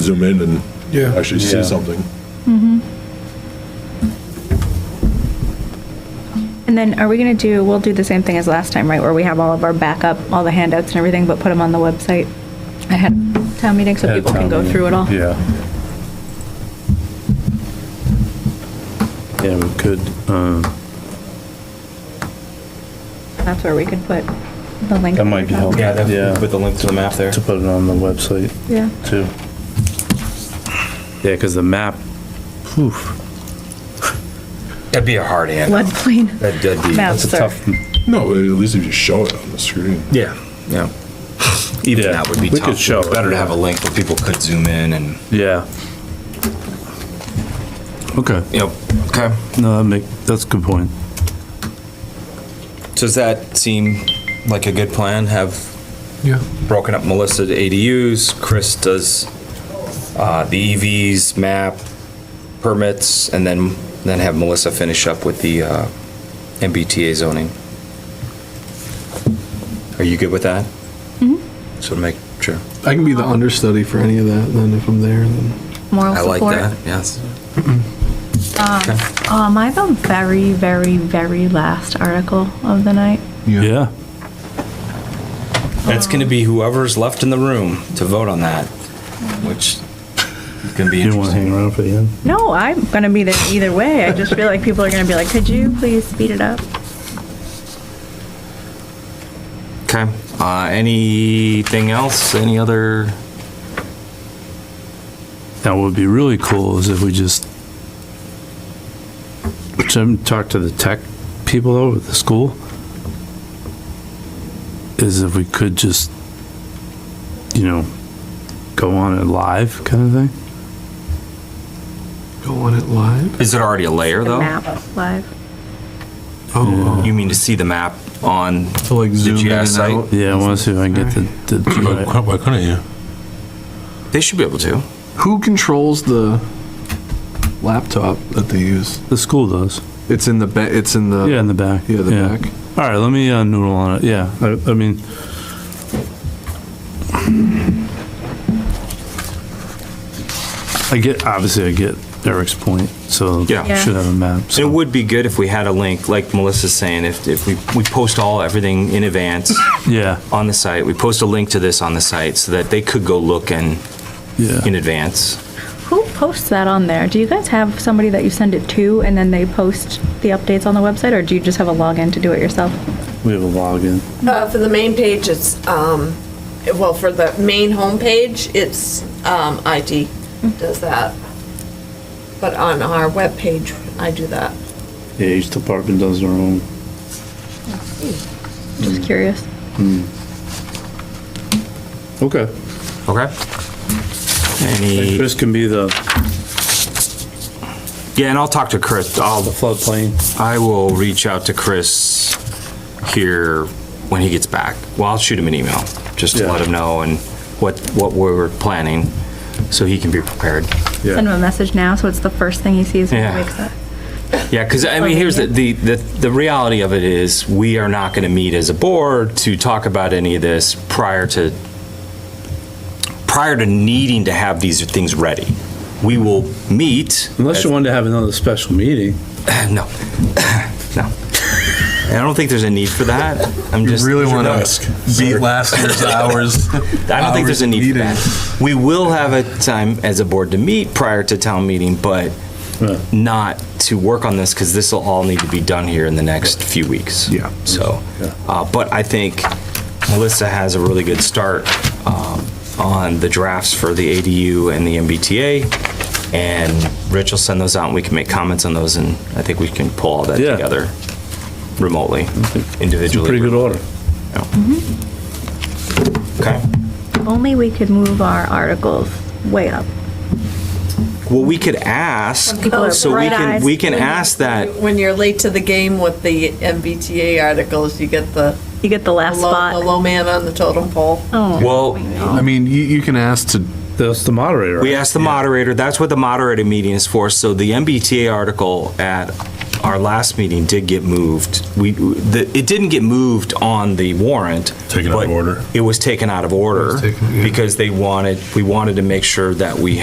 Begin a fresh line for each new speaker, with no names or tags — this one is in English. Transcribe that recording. zoom in and
Yeah.
actually see
Yeah.
something.
And then are we going to do, we'll do the same thing as last time, right, where we have all of our backup, all the handouts and everything, but put them on the website ahead of town meeting so people can go through it all?
Yeah. Yeah, we could, um,
That's where we could put the link.
that might be helpful.
Yeah,
Yeah,
that, with the link to the map there.
to put it on the website
Yeah.
too. Yeah, because the map, poof,
That'd be a hard hand.
Floodplain
That'd, that'd be.
maps
that's a
are,
tough.
No, at least if you show it on the screen.
Yeah. Yeah. Even
Yeah,
that would be
we
tough.
could show it,
Better to
yeah.
have a link where people could zoom in and,
Yeah. Okay,
you know, okay.
no, that make, that's a good point.
Does that seem like a good plan? Have
Yeah.
broken up Melissa to ADUs, Chris does uh, the EVs, map, permits, and then, then have Melissa finish up with the uh, MBTA zoning. Are you good with that? Mm-hmm. So make sure.
I can be the understudy for any of that then if I'm there. Then.
moral
I like
support.
that, yes.
Um, am I the very, very, very last article of the night?
Yeah,
That's going to be whoever's left in the room to vote on that, which is going to be
you want to
interesting.
hang around for the end?
No, I'm going to be there either way. I just feel like people are going to be like, could you please speed it up?
Okay. Uh, Anything else? Any other?
Now, what would be really cool is if we just, which I haven't talked to the tech people over at the school, is if we could just, you know, go on it live kind of thing.
Go on it live.
Is it already a layer,
The
though?
map live.
Oh,
You mean to see the map on
to like zoom in
GIS
and
site?
out.
Yeah, I want to see if I can get the, the,
Why couldn't you?
They should be able to.
Who controls the laptop that they use?
the school does.
It's in the ba- it's in the
Yeah, in the back.
yeah, the back.
All right, let me uh, noodle on it. Yeah, I, I mean, I get obviously I get Eric's point, so
Yeah.
Yeah.
should have a map.
It
So.
would be good if we had a link, like Melissa's saying, if, if we, we post all, everything in advance
yeah,
on the site, we post a link to this on the site so that they could go look in,
yeah.
in advance.
Who posts that on there? Do you guys have somebody that you send it to and then they post the updates on the website, or do you just have a login to do it yourself?
we have a login.
Uh, For the main page, it's, um, well, for the main homepage, it's um, IT does that. But on our webpage, I do that.
Yeah, each department does their own.
Just curious.
Okay.
Okay? Any,
Chris can be the,
yeah, and I'll talk to Chris.
the
I'll,
floodplain.
I will reach out to Chris here when he gets back. Well, I'll shoot him an email just to
Yeah.
let him know and what, what we're planning so he can be prepared.
Send him a message now, so it's the first thing he sees when
Yeah.
he wakes up.
Yeah, because I mean, here's the, the, the the reality of it is, we are not going to meet as a board to talk about any of this prior to, prior to needing to have these things ready. We will meet.
Unless you wanted to have another special meeting.
No, no. And I don't think there's a need for that. I'm
You
just.
really want
ask.
to beat last year's hours?
I don't think there's a need for that. We will have a time as a board to meet prior to town meeting, but
Yeah.
not to work on this because this will all need to be done here in the next few weeks.
Yeah.
So, uh, but I think Melissa has a really good start um, on the drafts for the ADU and the MBTA. And Rich will send those out and we can make comments on those and I think we can pull all that
Yeah.
together remotely, individually.
Pretty good order.
Yeah. Okay.
If only we could move our articles way up.
Well, we could ask,
People are
so we can,
bright-eyed.
we can ask that,
When you're late to the game with the MBTA articles, you get the
You get the
the
last
low, the
spot.
low man on the totem pole.
Oh.
well,
I mean, you, you can ask to
That's the moderator.
we
right?
asked the moderator, that's what the moderator meeting is for, so the MBTA article at our last meeting did get moved. We, the, it didn't get moved on the warrant.
Taken out of
but
order.
It was taken out of order
taken, yeah.
because they wanted, we wanted to make sure that we